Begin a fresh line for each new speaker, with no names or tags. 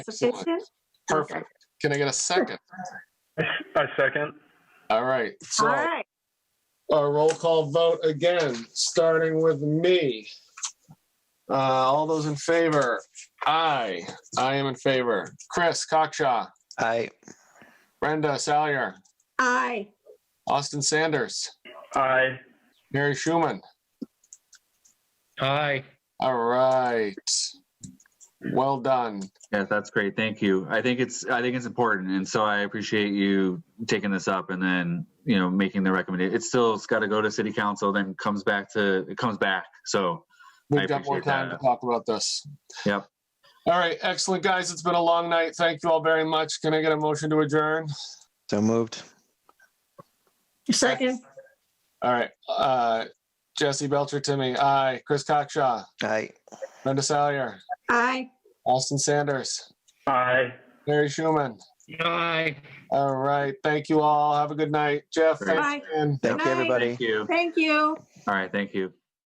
Sufficient?
Perfect. Can I get a second?
I second.
All right.
All
So uh,
right,
A roll call vote again, starting with me. Uh, all those in favor?
I, I am in favor. Chris Cockshaw,
Aye.
Brenda Salyer,
aye.
Austin Sanders,
Aye.
Mary Schuman.
Aye.
All right. Well done.
Yes, that's great. Thank you. I think it's I think it's important, and so I appreciate you taking this up and then you know making the recommendation. It's still it's got to go to City Council, then comes back to it comes back. So I
We've got more
appreciate
time
that.
to talk about this.
Yep.
All right. Excellent, guys. It's been a long night. Thank you all very much. Can I get a motion to adjourn?
So moved.
Second,
All right. Uh, Jesse Belcher, Timmy. Aye. Chris Cockshaw,
Aye.
Brenda Salyer,
aye.
Austin Sanders,
Aye.
Mary Schuman.
Aye.
All right. Thank you all. Have a good night. Jeff,
Great.
thanks, man.
Thank
Aye.
you, everybody.
Thank you.
Thank you.
All right. Thank you.